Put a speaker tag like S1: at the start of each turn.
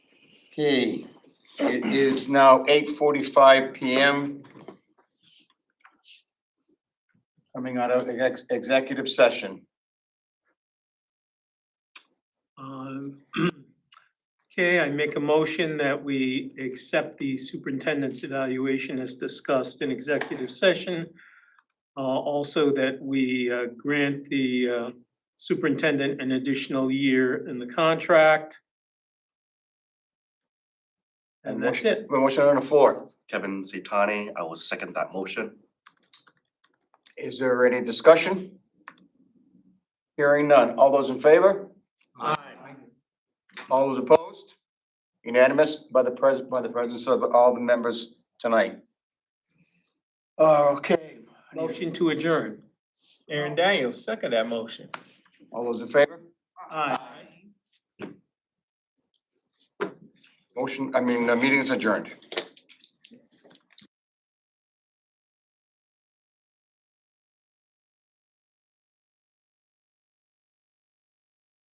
S1: Okay, it is now eight forty-five PM. Coming out of ex- executive session.
S2: Um, Okay, I make a motion that we accept the superintendent's evaluation as discussed in executive session. Uh, Also that we uh, grant the uh, superintendent an additional year in the contract. And that's it.
S1: Motion on the floor.
S3: Kevin Zitani, I will second that motion.
S1: Is there any discussion? Hearing none. All those in favor? Aye. All those opposed? Unanimous by the pres- by the presence of all the members tonight. Okay.
S2: Motion to adjourn.
S4: Aaron Daniels, second that motion.
S1: All those in favor?
S2: Aye.
S1: Motion, I mean, the meeting is adjourned.